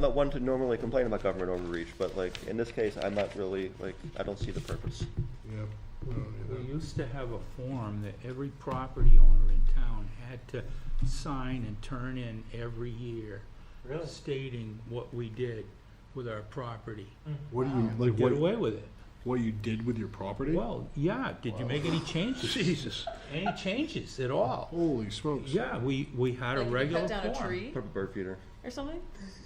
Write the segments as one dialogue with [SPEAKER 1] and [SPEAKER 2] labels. [SPEAKER 1] I'm not one to normally complain about government overreach, but like, in this case, I'm not really, like, I don't see the purpose.
[SPEAKER 2] Yep. I don't
[SPEAKER 3] We
[SPEAKER 2] either.
[SPEAKER 3] used to have a form that every property owner in town had to sign and turn in every year. Stating what we did with our property.
[SPEAKER 4] What do you, like,
[SPEAKER 3] Get
[SPEAKER 4] what,
[SPEAKER 3] away with it.
[SPEAKER 4] what you did with your property?
[SPEAKER 3] Well, yeah, did you make any changes?
[SPEAKER 4] Jesus.
[SPEAKER 3] Any changes at all?
[SPEAKER 4] Holy smokes.
[SPEAKER 3] Yeah, we, we had a
[SPEAKER 5] Like if you
[SPEAKER 3] regular
[SPEAKER 5] Cut down a
[SPEAKER 3] form.
[SPEAKER 5] tree
[SPEAKER 1] Put up a bird feeder.
[SPEAKER 5] or something?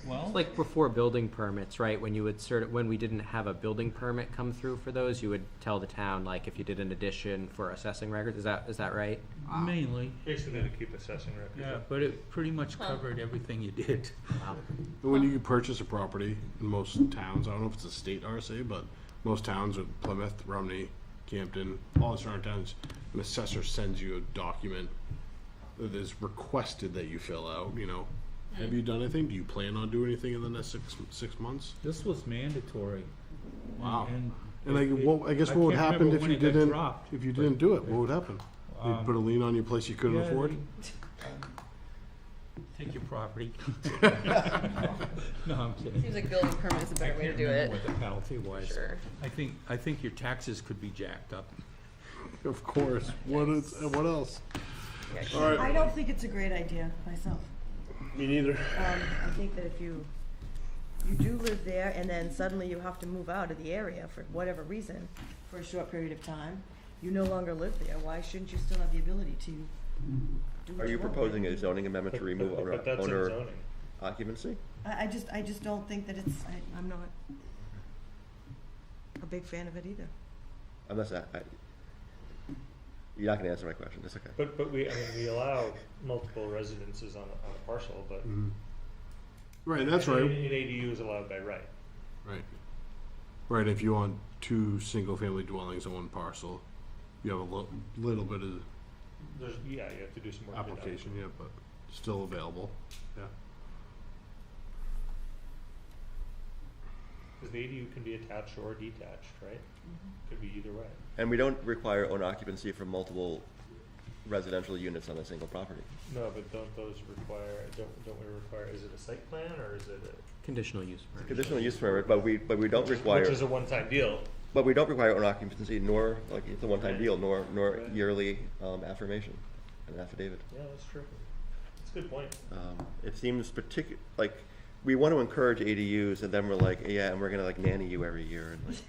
[SPEAKER 3] Well,
[SPEAKER 6] Like before building permits, right, when you would sort of, when we didn't have a building permit come through for those, you would tell the town, like, if you did an addition for assessing records, is that, is that right?
[SPEAKER 3] mainly,
[SPEAKER 7] Basically to keep assessing
[SPEAKER 3] yeah,
[SPEAKER 7] records.
[SPEAKER 3] but it pretty much covered everything you did.
[SPEAKER 4] And When you purchase a property, in most towns, I don't know if it's a state RSA, but most towns are Plymouth, Romney, Campden, all the surrounding towns, an assessor sends you a document that is requested that you fill out, you know. Have you done anything? Do you plan on doing anything in the next six, six months?
[SPEAKER 3] This was mandatory.
[SPEAKER 4] Wow.
[SPEAKER 3] And
[SPEAKER 4] And like,
[SPEAKER 3] it-
[SPEAKER 4] what, I guess
[SPEAKER 3] I
[SPEAKER 4] what would
[SPEAKER 3] can't
[SPEAKER 4] happen
[SPEAKER 3] remember
[SPEAKER 4] if
[SPEAKER 3] when
[SPEAKER 4] you
[SPEAKER 3] it got
[SPEAKER 4] didn't,
[SPEAKER 3] dropped, Uh,
[SPEAKER 4] if you didn't do it, what would happen? They'd put a lien on your place you couldn't
[SPEAKER 3] Yeah,
[SPEAKER 4] afford?
[SPEAKER 3] they- Take your property. No, I'm kidding.
[SPEAKER 5] Seems like building permit is a better way to do it.
[SPEAKER 3] What the penalty was.
[SPEAKER 5] Sure.
[SPEAKER 3] I think, I think your taxes could be jacked up.
[SPEAKER 4] Of course. What is, what else? All right,
[SPEAKER 8] I don't think it's a great idea myself.
[SPEAKER 4] me neither.
[SPEAKER 8] Um, I think that if you, you do live there and then suddenly you have to move out of the area for whatever reason, for a short period of time, you no longer live there, why shouldn't you still have the ability to do what
[SPEAKER 1] Are you
[SPEAKER 8] want?
[SPEAKER 1] proposing a zoning amendment to remove
[SPEAKER 7] But-
[SPEAKER 1] owner
[SPEAKER 7] But that's in
[SPEAKER 1] owner
[SPEAKER 7] zoning.
[SPEAKER 1] occupancy?
[SPEAKER 8] I, I just, I just don't think that it's, I, I'm not a big fan of it either.
[SPEAKER 1] Unless I, I, you're not gonna answer my question, it's okay.
[SPEAKER 7] But, but we, I mean, we allow multiple residences on a, on a parcel, but.
[SPEAKER 4] Right, that's
[SPEAKER 7] an-
[SPEAKER 4] right.
[SPEAKER 7] An ADU is allowed by right.
[SPEAKER 4] Right. Right, if you want two single-family dwellings on one parcel, you have a lo- little bit of
[SPEAKER 7] There's, yeah, you have to do some work. to adopt it.
[SPEAKER 4] application, yeah, but still available.
[SPEAKER 7] Cause the ADU can be attached or detached, right? Could be either way.
[SPEAKER 1] And we don't require owner occupancy for multiple residential units on a single property.
[SPEAKER 7] No, but don't those require, don't, don't we require, is it a site plan or is it a?
[SPEAKER 6] Conditional use permit.
[SPEAKER 1] Conditional use permit, but we, but we don't
[SPEAKER 7] Which
[SPEAKER 1] require,
[SPEAKER 7] is a one-time deal.
[SPEAKER 1] but we don't require owner occupancy nor, like, it's a one-time
[SPEAKER 7] Right.
[SPEAKER 1] deal, nor, nor
[SPEAKER 7] Right.
[SPEAKER 1] yearly, um, affirmation, an affidavit.
[SPEAKER 7] Yeah, that's true. That's a good point.
[SPEAKER 1] Um, it seems particular, like, we want to encourage ADUs and then we're like, yeah, and we're gonna like nanny you every year and like,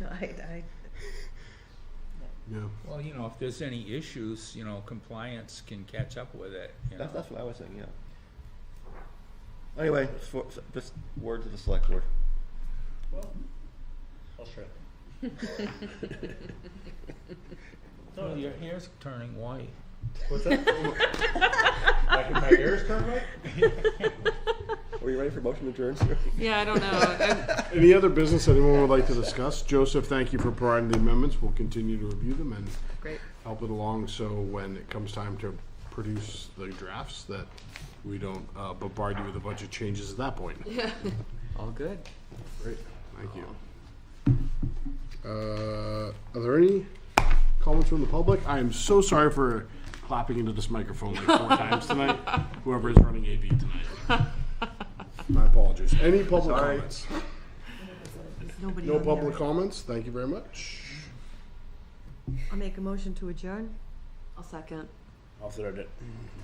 [SPEAKER 8] No, I, I,
[SPEAKER 4] Yeah.
[SPEAKER 3] Well, you know, if there's any issues, you know, compliance can catch up with it, you know.
[SPEAKER 1] that's, that's what I was saying, yeah. Anyway, for, so- just word to the select board.
[SPEAKER 7] Well, I'll try.
[SPEAKER 3] Well, Oh, your hair's turning white.
[SPEAKER 7] What's that? my, my ears turn right?
[SPEAKER 1] Are you ready for motion adjourned?
[SPEAKER 5] Yeah, I don't know.
[SPEAKER 4] Any other business anyone would like to discuss? Joseph, thank you for providing the amendments. We'll continue to review them and
[SPEAKER 5] Great.
[SPEAKER 4] help it along, so when it comes time to produce the drafts, that we don't uh, bombard you with a bunch of changes at that point.
[SPEAKER 6] All good.
[SPEAKER 4] Great, thank you. Uh, Are there any comments from the public? I am so sorry for clapping into this microphone like four times tonight, whoever is running AV tonight. My apologies. Any public comments?
[SPEAKER 8] there's nobody
[SPEAKER 4] No
[SPEAKER 8] on there.
[SPEAKER 4] public comments, thank you very much.
[SPEAKER 8] I'll make a motion to adjourn.
[SPEAKER 5] I'll second.
[SPEAKER 4] I'll throw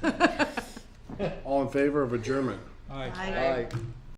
[SPEAKER 4] it. All in favor of adjournment?
[SPEAKER 3] All right,
[SPEAKER 8] I-
[SPEAKER 1] Aye.